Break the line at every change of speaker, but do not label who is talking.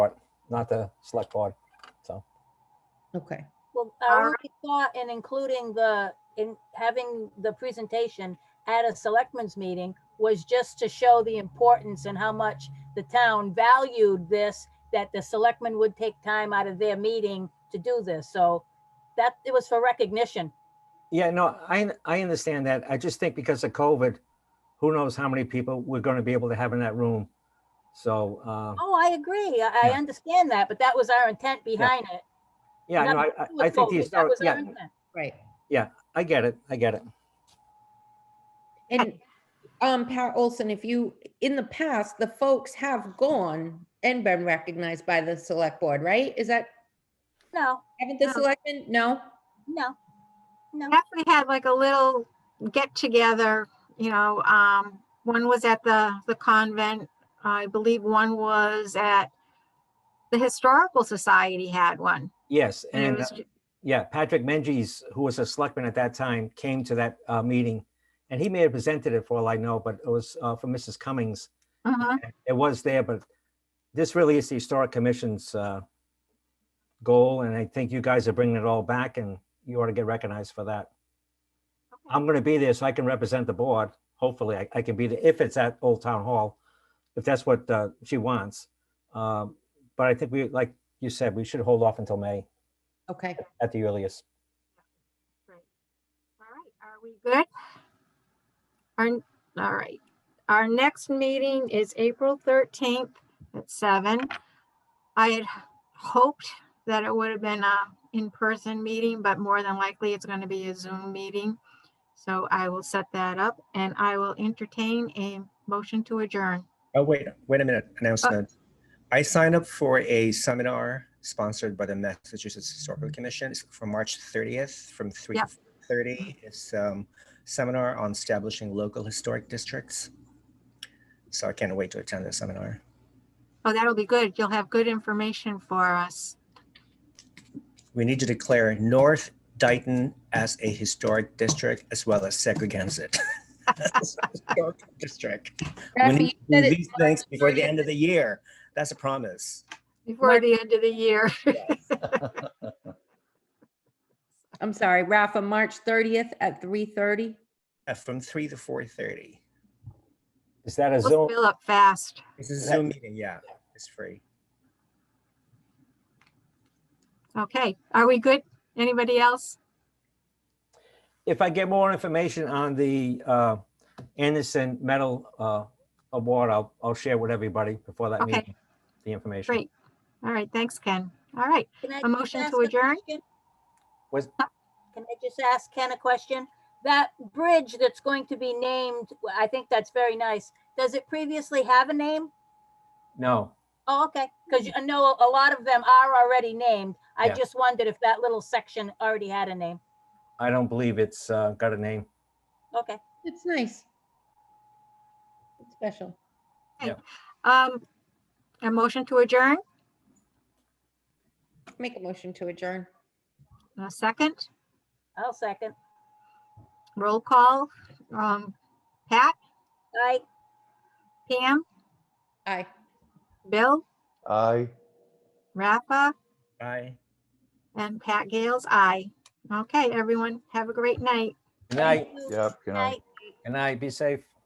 not the select board. So,
Okay,
Well, I already saw in including the, in having the presentation at a selectmen's meeting was just to show the importance and how much the town valued this, that the selectmen would take time out of their meeting to do this. So that, it was for recognition.
yeah, no, I, I understand that. I just think because of COVID, who knows how many people we're going to be able to have in that room. So, uh,
Oh, I agree. I, I
Yeah.
understand that, but that was our intent behind it.
yeah, no, I,
Nothing
I-
to do with
I think the
COVID. That
historic,
was our
yeah,
intent.
right.
I get it. I get it.
And um, Pat Olson, if you, in the past, the folks have gone and been recognized by the select board, right? Is that,
No,
haven't the
No.
selectmen? No?
no, no.
Actually had like a little get together, you know, um, one was at the, the convent. I believe one was at the Historical Society had one.
Yes,
And it
and, uh,
was, ju-
yeah, Patrick Menges, who was a selectman at that time, came to that, uh, meeting. And he may have presented it for all I know, but it was, uh, for Mrs. Cummings.
mhm.
it was there, but this really is the Historic Commission's uh, goal, and I think you guys are bringing it all back, and you ought to get recognized for that. I'm going to be there so I can represent the board. Hopefully, I- I can be there if it's at Old Town Hall, if that's what uh, she wants. Um, But I think we, like you said, we should hold off until May
Okay,
at the earliest.
All right, are we good? Our, all right, our next meeting is April thirteenth at seven. I had hoped that it would have been a in-person meeting, but more than likely it's gonna be a Zoom meeting. So I will set that up and I will entertain a motion to adjourn.
Oh, wait, wait a minute,
Uh,
announcement. I signed up for a seminar sponsored by the Massachusetts Historical
Mm-hmm.
Commission It's for March 30th from 3 to
Yep.
30. It's um seminar on establishing local historic districts. So I can't wait to attend the seminar.
Oh, that'll be good. You'll have good information for us.
We need to declare North Dayton as a historic district as well as Segregansett. as a historic District. We
Rafi,
need
you said
to do
it-
these things before the end of the year. That's a promise.
Before the end of the year.
I'm sorry, Rafa, March thirtieth at three thirty?
Uh, From 3 to 4:30.
Is that a
We'll
Zoom?
fill up fast.
It's a
that-
Zoom meeting, yeah, it's free.
Okay, are we good? Anybody else?
If I get more information on the uh, Anderson Medal uh, Award, I'll, I'll share with everybody before that
Okay.
meeting, the information.
Great. All right, thanks, Ken. All right,
Can I
A
just
motion to
ask a
adjourn?
question?
Was-
Can I just ask Ken a question? That bridge that's going to be named, well, I think that's very nice. Does it previously have a name?
No,
Oh, okay, because I know a lot of them are already named. I
Yeah.
just wondered if that little section already had a name.
I don't believe it's uh, got a name.
Okay,
It's nice. It's special.
um, a motion to adjourn,
Make a motion to adjourn.
a second,
I'll second.
roll call. Um, Pat,
Aye.
Pam,
Aye.
Bill,
Aye.
Rafa,
Bye.
and Pat Gales, aye. Okay, everyone, have a great night.
Good night,
Thank you.
Yep, good night.
Night.
good night, be safe.